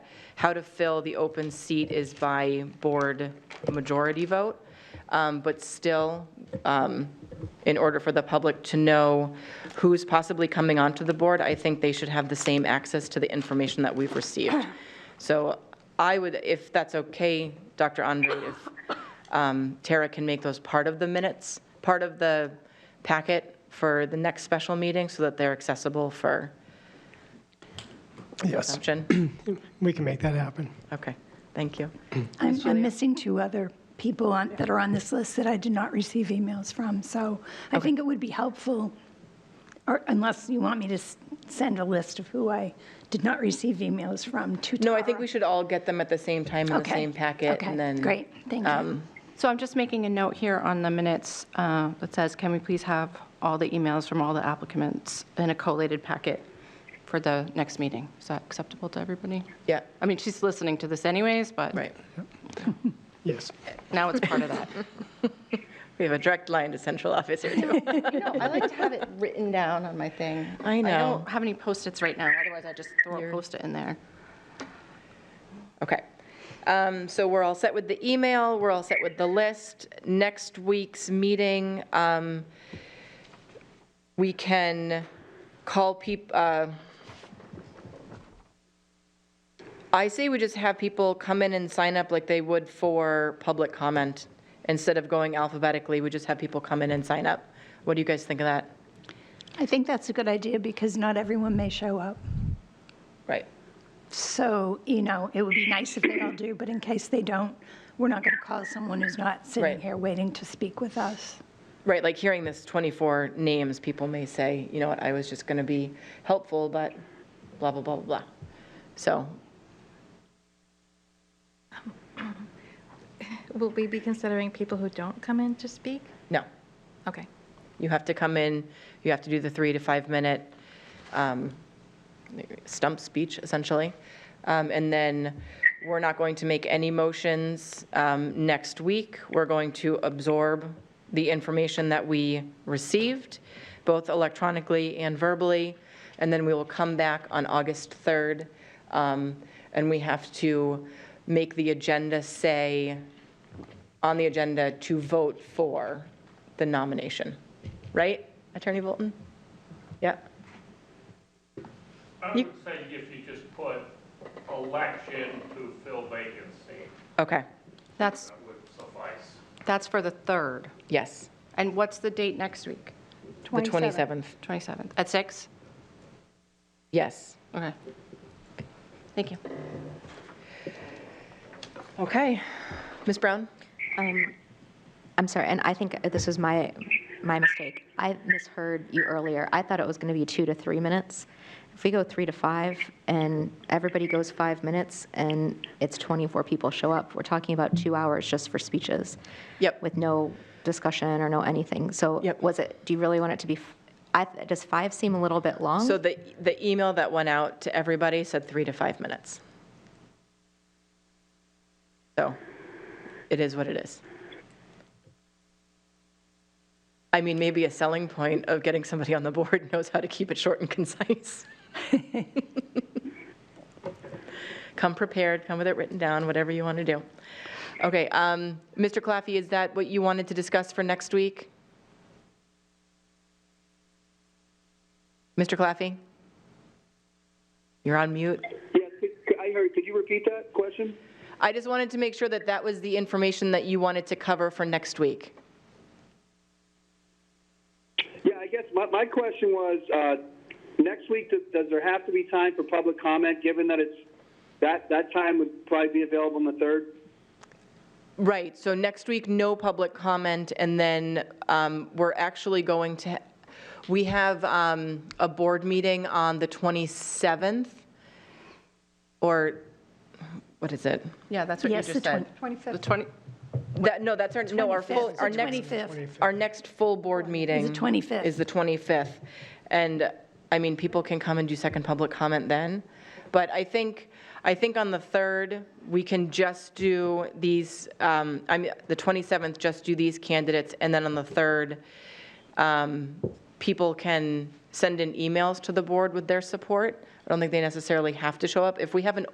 how to fill the open seat is by board majority vote. Um, But still, um, in order for the public to know who's possibly coming onto the board, I think they should have the same access to the information that we've received. So I would, if that's okay, Dr. Andre, if um, Tara can make those part of the minutes, part of the packet for the next special meeting so that they're accessible for Yes, consumption? we can make that happen. Okay, thank you. I'm, I'm missing two other people on, that are on this list that I did not receive emails from, so I think it would be helpful, or unless you want me to s- send a list of who I did not receive emails from to No, I Tara. think we should all get them at the same time in the Okay, same packet okay, and then. um, Great, thank you. So I'm just making a note here on the minutes uh, that says, can we please have all the emails from all the applicants in a collated packet for the next meeting? Is that acceptable to everybody? Yeah, I mean, she's listening to this anyways, but right. Yes. now it's part of that. We have a direct line to central office here too. I like to have it written down on my thing. I I know. don't have any Post-its right now, otherwise I just throw a You're- Post-it in there. Okay. Um, So we're all set with the email, we're all set with the list. Next week's meeting, um, we can call peop, uh, I say we just have people come in and sign up like they would for public comment. Instead of going alphabetically, we just have people come in and sign up. What do you guys think of that? I think that's a good idea because not everyone may show up. Right. So, you know, it would be nice if they all do, but in case they don't, we're not going to call someone who's not Right. sitting here waiting to speak with us. Right, like hearing this 24 names, people may say, you know what, I was just going to be helpful, but blah, blah, blah, blah, blah. So, Will we be considering people who don't come in to speak? no, Okay. you have to come in, you have to do the three to five minute um, stump speech, essentially. Um, And then we're not going to make any motions um, next week. We're going to absorb the information that we received, both electronically and verbally, and then we will come back on August 3rd. um, And we have to make the agenda say, on the agenda to vote for the nomination, right, Attorney Bolton? Yeah, I would say if you just put election to fill vacancy, okay, That's, that would suffice. that's for the 3rd. yes, And what's the date next week? the 27th, 27th, at 6? yes. Okay. Thank you. Okay, Ms. Brown? Um, I'm sorry, and I think this was my, my mistake. I misheard you earlier. I thought it was going to be two to three minutes. If we go three to five, and everybody goes five minutes, and it's 24 people show up, we're talking about two hours just for speeches. Yep. With no discussion or no anything. So Yep. was it, do you really want it to be, f- I, does five seem a little bit long? So the, the email that went out to everybody said three to five minutes. So it is what it is. I mean, maybe a selling point of getting somebody on the board knows how to keep it short and concise. Come prepared, come with it written down, whatever you want to do. Okay, um, Mr. Claffey, is that what you wanted to discuss for next week? Mr. Claffey? You're on mute. Yeah, c- c- I heard. Could you repeat that question? I just wanted to make sure that that was the information that you wanted to cover for next week. Yeah, I guess my, my question was, uh, next week, does, does there have to be time for public comment, given that it's, that, that time would probably be available on the 3rd? Right, so next week, no public comment, and then um, we're actually going to, we have um, a board meeting on the 27th, or, what is it? Yeah, that's what you Yes, the just said. 25th. The 20, That, no, that's our, no, our full, 25th. our The next, 25th. our next full board meeting. 25th. Is the 25th. And, I mean, people can come and do second public comment then. But I think, I think on the 3rd, we can just do these, um, I mean, the 27th, just do these candidates. And then on the 3rd, um, people can send in emails to the board with their support. I don't think they necessarily have to show up. If we have an